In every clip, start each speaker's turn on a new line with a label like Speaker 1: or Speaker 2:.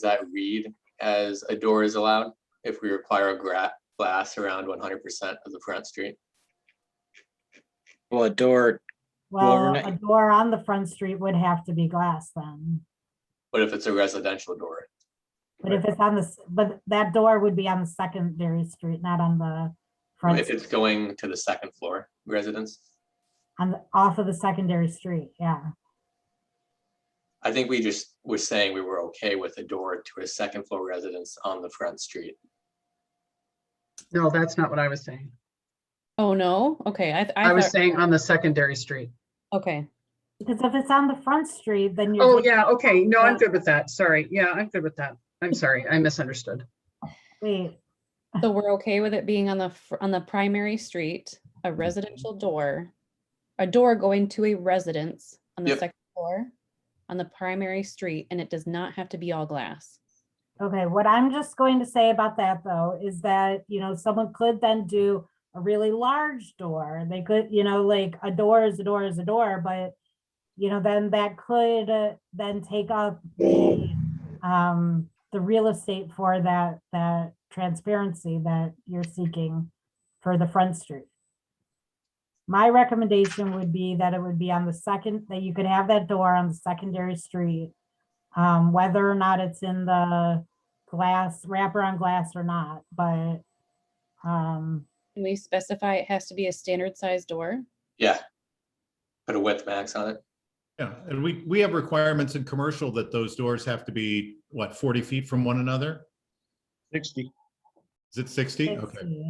Speaker 1: that read as a door is allowed if we require a gra- glass around one hundred percent of the front street.
Speaker 2: Well, a door, Well,
Speaker 3: Well,
Speaker 2: Renee-
Speaker 3: a door on the front street would have to be glass then.
Speaker 1: But if it's a residential door,
Speaker 3: But if it's on this, but that door would be on the secondary street, not on the front,
Speaker 1: if it's going to the second floor residence,
Speaker 3: on, the off of the secondary street, yeah.
Speaker 1: I think we just were saying we were okay with a door to a second floor residence on the front street.
Speaker 4: No, that's not what I was saying.
Speaker 5: Oh, no? Okay, I, th-
Speaker 4: I
Speaker 5: I
Speaker 4: was
Speaker 5: thought,
Speaker 4: saying on the secondary street.
Speaker 5: okay,
Speaker 3: Because if it's on the front street, then you're.
Speaker 4: Oh, yeah, okay. No, I'm
Speaker 3: Yeah.
Speaker 4: good with that. Sorry. Yeah, I'm good with that. I'm sorry. I misunderstood.
Speaker 3: Wait,
Speaker 5: so we're okay with it being on the, fr- on the primary street, a residential
Speaker 4: Mm-hmm.
Speaker 5: door, a door going to a residence on the
Speaker 1: Yep.
Speaker 5: second floor, on the primary street, and it does not have to be all glass.
Speaker 3: okay, what I'm just going to say about that though, is that, you know, someone could then do a really large door. They could, you know, like a door is a door is a door, but, you know, then that could uh, then take up the, um, the real estate for that, that transparency that you're seeking for the front street. My recommendation would be that it would be on the second, that you could have that door on the secondary street. Um, whether or not it's in the glass, wrapper on glass or not, but, um,
Speaker 5: Can we specify it has to be a standard size door?
Speaker 1: Yeah. Put a width max on it.
Speaker 6: Yeah, and we, we have requirements in commercial that those doors have to be, what, 40 feet from one another?
Speaker 7: 60.
Speaker 6: Is it 60?
Speaker 3: let's
Speaker 6: Okay.
Speaker 3: see,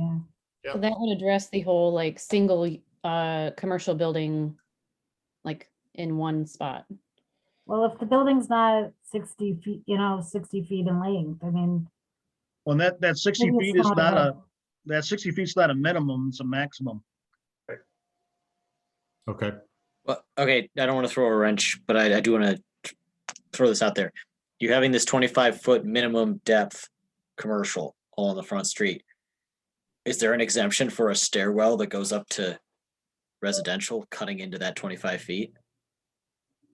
Speaker 3: yeah.
Speaker 5: So that would address the whole like single, y- uh, commercial building, like in one spot.
Speaker 3: Well, if the building's not sixty feet, you know, sixty feet in length, I mean.
Speaker 7: Well, and that, that 60
Speaker 3: maybe
Speaker 7: feet
Speaker 3: it's
Speaker 7: is not a,
Speaker 3: a-
Speaker 7: that 60 feet's not a minimum, it's a maximum.
Speaker 6: Okay,
Speaker 2: well, okay, I don't want to throw a wrench, but I, I do want to throw this out there. You're having this twenty-five foot minimum depth commercial all on the front street. Is there an exemption for a stairwell that goes up to residential cutting into that twenty-five feet?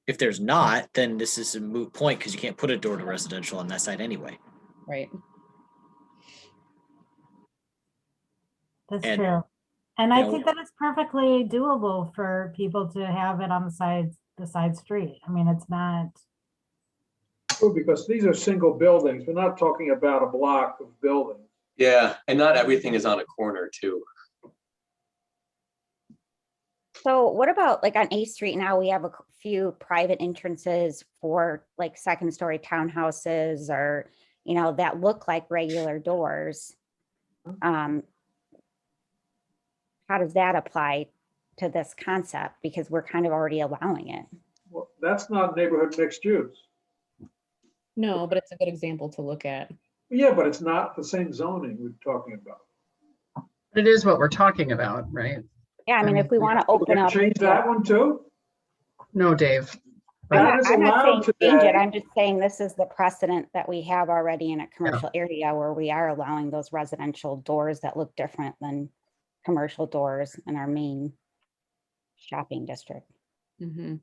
Speaker 2: If there's not, then this is a moot point because you can't put a door to residential on that side anyway.
Speaker 5: Right.
Speaker 3: That's
Speaker 2: and,
Speaker 3: true. And I
Speaker 2: know-
Speaker 3: think that it's perfectly doable for people to have it on the sides, the side street. I mean, it's not,
Speaker 8: True, because these are single buildings. We're not talking about a block of buildings.
Speaker 1: Yeah, and not everything is on a corner too.
Speaker 9: So what about like on A Street now, we have a c- few private entrances for like second story townhouses or, you know, that look like regular doors. Um How does that apply to this concept? Because we're kind of already allowing it.
Speaker 8: Well, that's not neighborhood mixed use.
Speaker 5: No, but it's a good example to look at.
Speaker 8: Yeah, but it's not the same zoning we're talking about.
Speaker 4: It is what we're talking about, right?
Speaker 9: Yeah, I mean, if we want to
Speaker 8: We're
Speaker 9: open
Speaker 8: gonna
Speaker 9: up.
Speaker 8: Change
Speaker 9: to-
Speaker 8: that one too?
Speaker 4: No, Dave.
Speaker 9: I'm
Speaker 8: That
Speaker 9: not
Speaker 8: is
Speaker 9: I'm not
Speaker 8: allowed
Speaker 9: saying change
Speaker 8: today.
Speaker 9: it. I'm just saying this is the precedent that we have already in a commercial area where we are allowing those residential doors that look different than commercial doors in our main shopping district.
Speaker 5: Mm-hmm.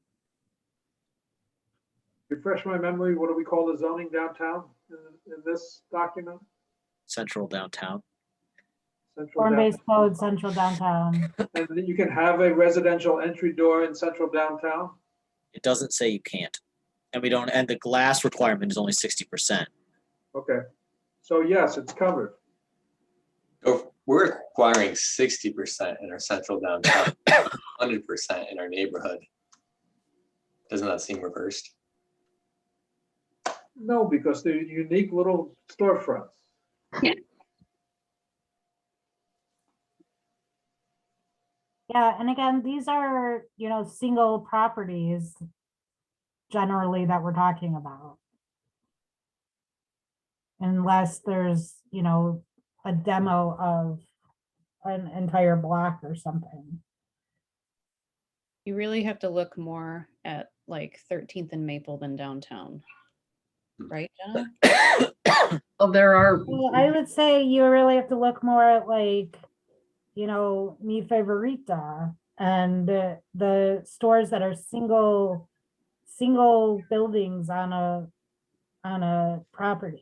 Speaker 8: Refresh my memory, what do we call the zoning downtown in in this document?
Speaker 2: Central downtown.
Speaker 8: Central
Speaker 3: form-based
Speaker 8: downtown.
Speaker 3: code, central downtown.
Speaker 8: And then you can have a residential entry door in central downtown?
Speaker 2: It doesn't say you can't. And we don't, and the glass requirement is only sixty percent.
Speaker 8: Okay, so yes, it's covered.
Speaker 1: Oh, We're acquiring sixty percent in our central downtown, hundred percent in our neighborhood. Doesn't that seem reversed?
Speaker 8: No, because they're unique little storefronts.
Speaker 3: Yeah, and again, these are, you know, single properties generally that we're talking about. Unless there's, you know, a demo of an entire block or something.
Speaker 5: You really have to look more at like Thirteenth and Maple than downtown.
Speaker 1: Hmm.
Speaker 5: Right, John?
Speaker 4: Well, there are,
Speaker 3: Well, I would say you really have to look more at like, you know, Mi Favorita and uh, the stores that are single, single buildings on a, on a property.